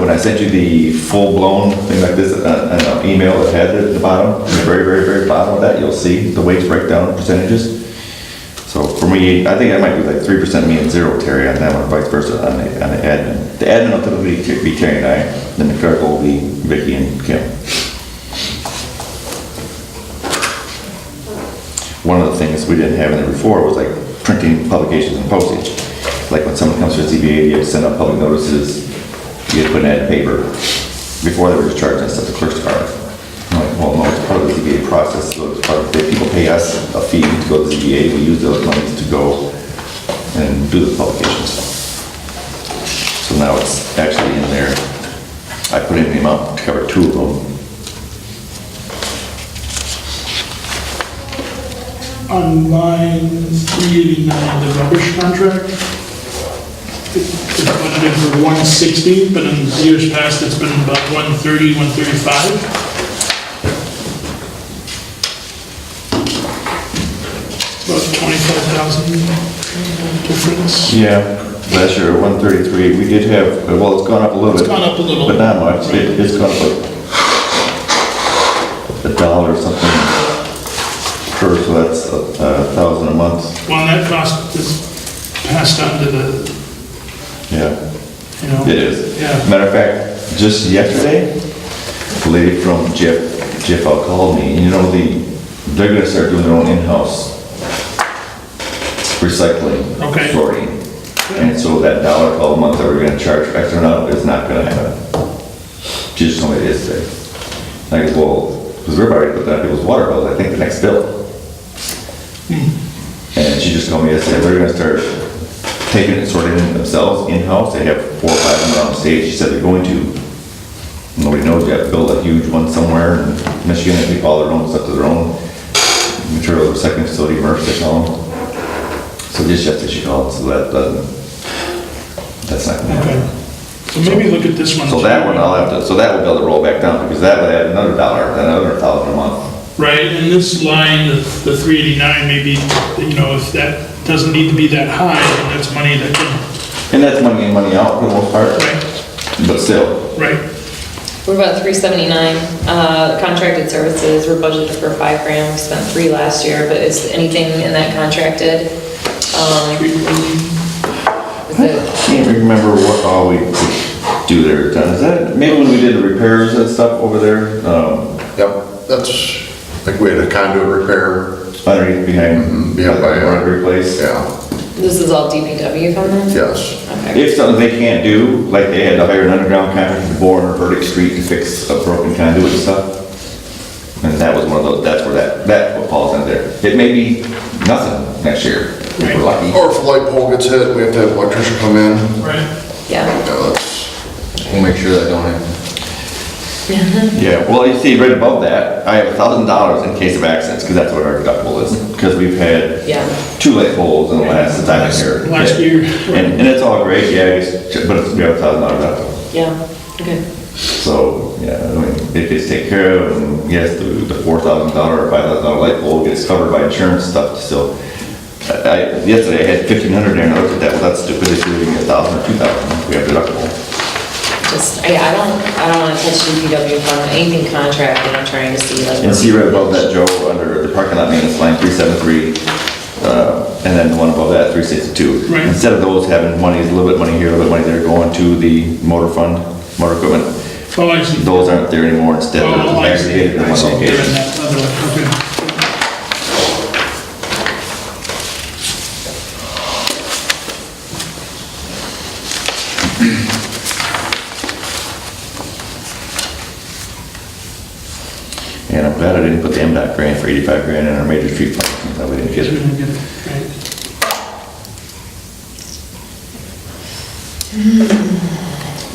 when I sent you the full-blown thing like this, uh, uh, email that had it at the bottom, at the very, very, very bottom of that, you'll see the wage breakdown percentages. So for me, I think I might be like three percent me and zero Terry on that one, vice versa on the, on the admin. The admin will typically t- be Terry and I, then the clerk will be Vicky and Kim. One of the things we didn't have in there before was like printing publications and postage. Like when someone comes to the ZBA, you have to send out public notices, you have to put an ad in paper. Before they were just charging us at the clerk's department. I'm like, well, no, it's part of the ZBA process, so it's part of, if people pay us a fee to go to the ZBA, we use those monies to go and do the publications. So now it's actually in there. I put in the amount to cover two of them. On line 389, the rubbish contract, it's budgeted for 160, but in years past, it's been about 130, 135. About 25,000 difference. Yeah, last year, one thirty-three, we did have, well, it's gone up a little bit. It's gone up a little. But not much, it, it's gone up like a dollar or something per, so that's a a thousand a month, Well, and that cost is passed on to the, yeah. you know. It is. Yeah. Matter of fact, just yesterday, a lady from Jeff, Jeff called me, and you know, the, they're gonna start doing their own in-house recycling. Okay. Sorting. And so that dollar a month that we're gonna charge for extra now is not gonna happen. She just told me it is today. Like, well, because we're already putting out people's water bills, I think the next bill. And she just told me yesterday, they're gonna start taking it, sorting it themselves in-house, they have four or five of them on stage, she said they're going to. Nobody knows, you have to build a huge one somewhere in Michigan, and they all their own stuff to their own material recycling facility, MRF, they call them. So just yesterday she called, so that doesn't, that's not gonna happen. Okay. So maybe look at this one. So that one I'll have to, so that would be able to roll back down, because that would add another dollar, another thousand a month. Right, and this line, the 389, maybe, you know, if that doesn't need to be that high, then that's money that can, And that's money in, money out for the most part, right, but still, right, We're about three seventy-nine, uh, contracted services, we're budgeted for five grand, we spent three last year, but is anything in that contracted? Um, is it- I can't remember what all we do there, John, is that, maybe when we did the repairs and stuff over there, um, Yep, that's, like we had a conduit repair, underneath behind. yeah, by, uh, Roderick Place. yeah, This is all DPW funded? yes. Okay. If something they can't do, like they had to hire an underground contractor to bore in a verdict street to fix a broken conduit and stuff. And that was one of those, that's where that, that what falls in there. It may be nothing next year, if we're lucky. Or if a light pole gets hit, we have to have an electrician come in. right. Yeah, Yeah, that's- We'll make sure that don't happen. Yeah, well, you see, right above that, I have a thousand dollars in case of accidents, because that's what our deductible is. Because we've had Yeah. two light poles in the last, time I was here. Last year. And, and it's all great, yeah, it's- but it's, we have a thousand dollar deductible. yeah, okay. So, yeah, I mean, it gets taken care of, and yes, the, the four thousand dollar or five thousand dollar light bulb gets covered by insurance stuff, still. I, I- yesterday I had fifteen hundred there, and I looked at that, well, that's stupid, it's leaving a thousand or two thousand, we have deductible. Just, I, I don't, I don't wanna touch DPW fund, anything contracted, I'm trying to see like. And see right above that, Joe, under the parking lot maintenance line, three seven three, uh, and then the one above that, three sixty-two. Right. Instead of those having money, a little bit of money here, a little bit of money there, going to the motor fund, motor equipment, Oh, I see. those aren't there anymore, instead they're Oh, I see. aggregated in one They're in location. that other one, And I'm glad I didn't put the MDOT grant for 85 grand in our major street fund, that we didn't get okay. it. We didn't get it, right.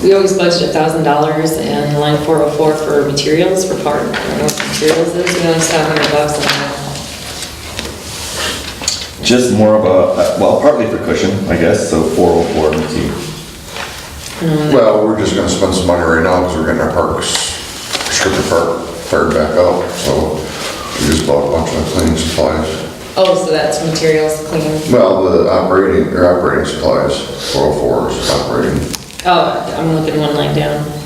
We always budget a thousand dollars in line four oh four for materials for part, I don't know what materials is, you know, it's seven hundred bucks and Just more of a, uh, well, partly for cushion, I guess, so 404, let me see. Well, we're just gonna spend some money right now because we're getting our parks, strip the park fired back up, so we just bought a bunch of cleaning supplies. Oh, so that's materials cleaning. Well, the oh operating, or operating supplies, 404s operating. Oh, I'm looking one line down.